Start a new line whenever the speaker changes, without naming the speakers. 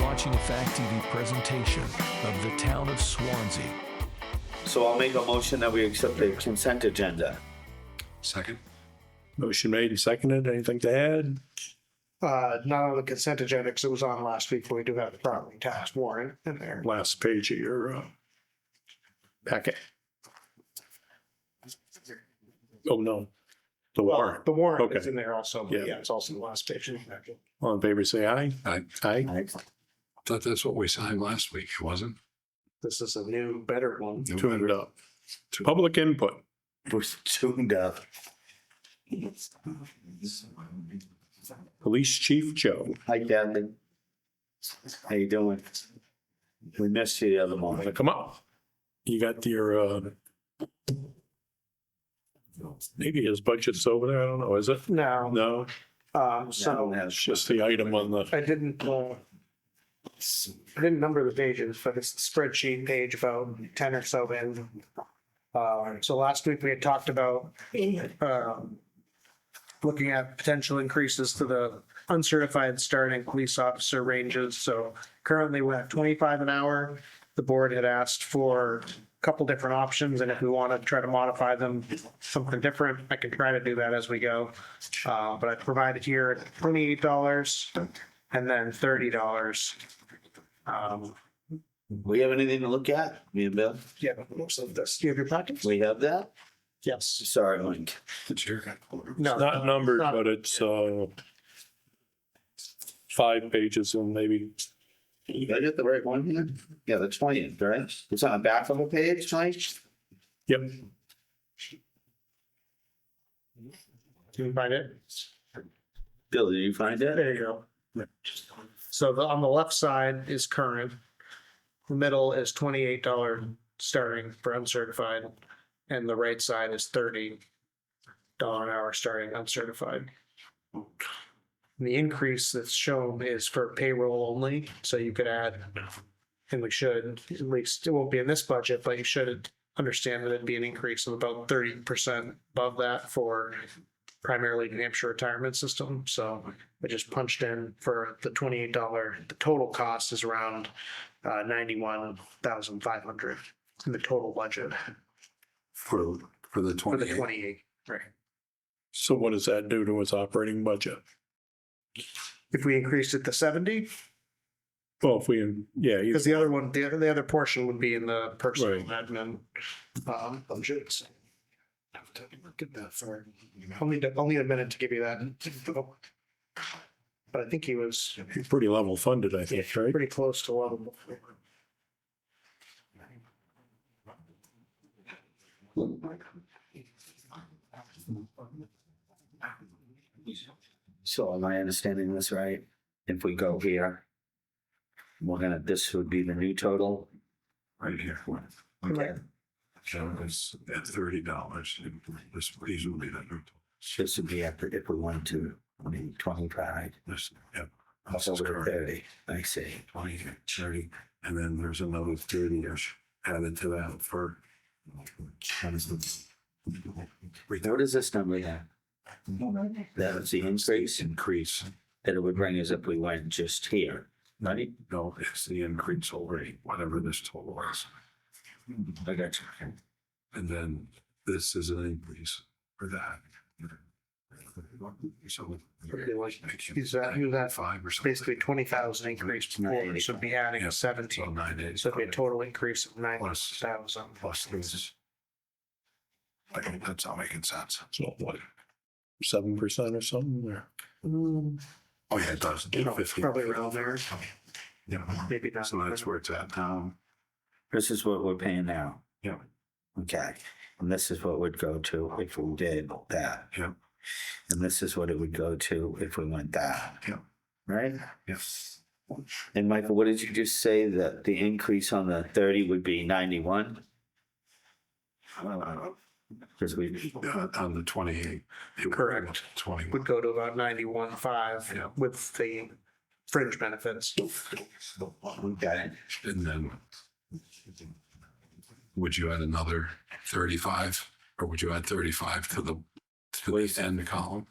watching a Fact TV presentation of the town of Swansea.
So I'll make a motion that we accept the consent agenda.
Second.
Motion made and seconded. Anything to add?
Uh, not on the consent agenda, because it was on last week, but we do have the property tax warrant in there.
Last page of your uh, packet. Oh, no. The
Well,
warrant.
The warrant is
Okay.
in there also, but
Yeah.
yeah, it's also the last page. of the packet.
All in favor, say aye.
I
Aye.
thought that's what we signed last week, It wasn't?
This is a new, better one.
Two hundred up. Public input.
We're tuned up.
Police Chief Joe.
Hi, Kathy. How you doing? We missed you the other morning.
Wanna Come up. You got your, uh, maybe his budget's over there. I don't know. Is it?
No,
No,
um,
I don't
so
have-
it's just the item on the,
I didn't, uh, I didn't number the pages, but it's the spreadsheet page about ten or so in. Uh, so last week we had talked about, um, looking at potential increases to the uncertified starting police officer ranges. So currently we're at twenty-five an hour. The board had asked for a couple different options and if we want to try to modify them, something different, I can try to do that as we go. Uh, but I provided here at twenty-eight dollars and then thirty dollars. Um,
We have anything to look at, me and Bill?
yeah, most of this, do you have your packets?
We have that?
Yes.
Sorry, Link.
Sure.
No.
not numbered, but it's, uh, five pages and maybe
Did I get the right one here? Yeah, the twentieth, right? It's on the back of the page, Mike?
Yep,
Can you find it?
Bill, did you find it?
There you go. So the, on the left side is current. The middle is twenty-eight dollar starting for uncertified, and the right side is thirty dollar an hour starting uncertified. The increase that's shown is for payroll only, so you could add, and we should, at least, it won't be in this budget, but you should understand that it'd be an increase of about thirty percent above that for primarily New Hampshire retirement system, so. I just punched in for the twenty-eight dollar, the total cost is around uh ninety-one thousand five hundred in the total budget
For, for the
for the
twenty-eight.
twenty-eight. Right.
so what does that do to its operating budget?
If we increased it to seventy,
Well, if we, yeah, you-
because the other one, the other, the other portion would be in the personal
Right.
admin um budget. Look at that, sorry. Only, only a minute to give you that. But I think he was
you're pretty level funded, I think, right?
pretty close to level.
So am I understanding this right? If we go here, we're gonna, this would be the new total?
Right here.
Right.
So it's at thirty dollars. This, these will be the new.
This would be after, if we wanted to, I mean, twenty-five,
This, yep. This is
over
current,
thirty, I see.
twenty, thirty, and then there's another thirty-ish added to that for.
What is this number here? That was the increase
Increase.
that it would bring us if we went just here, right?
No, it's the increase already, whatever this total is. Hmm.
I got you.
And then this is an increase for that. So.
Pretty much. He's, uh, he was at
Five or something.
basically twenty thousand increase forward, so be adding
Yeah. So
seventeen,
nine days.
so it'd be a total increase of nine
Plus,
thousand.
plus this. I think that's not making sense.
So what, seven percent or something, or
Oh, yeah, it does. Fifty.
Probably around there,
Yeah.
maybe not.
So that's where it's at now.
Um, This is what we're paying now.
Yeah.
Okay, and this is what would go to if we did that.
Yeah.
And this is what it would go to if we went that.
Yeah.
Right?
Yes.
And Michael, what did you just say that the increase on the thirty would be ninety-one?
Uh,
Cause we,
On the twenty-eight. it would-
Correct.
Twenty.
Would go to about ninety-one five
Yeah.
with the fringe benefits.
okay,
And then would you add another thirty-five or would you add thirty-five to the, to the end column?